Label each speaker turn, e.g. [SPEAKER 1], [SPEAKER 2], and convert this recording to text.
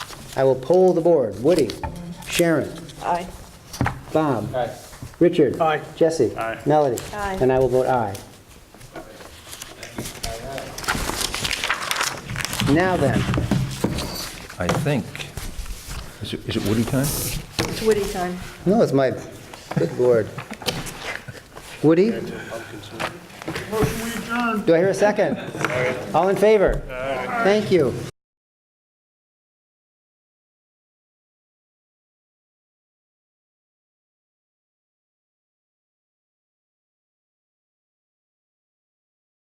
[SPEAKER 1] I will poll the board. Woody, Sharon,
[SPEAKER 2] Aye.
[SPEAKER 1] Bob. Richard.
[SPEAKER 3] Aye.
[SPEAKER 1] Jesse.
[SPEAKER 3] Aye.
[SPEAKER 1] Melody.
[SPEAKER 2] Aye.
[SPEAKER 1] And I will vote aye. Now then,
[SPEAKER 4] I think. Is it, is it Woody time?
[SPEAKER 2] It's Woody time.
[SPEAKER 1] no, it's my, good lord. Woody,
[SPEAKER 3] Motion we adjourn.
[SPEAKER 1] do I hear a second? All in favor? Thank you.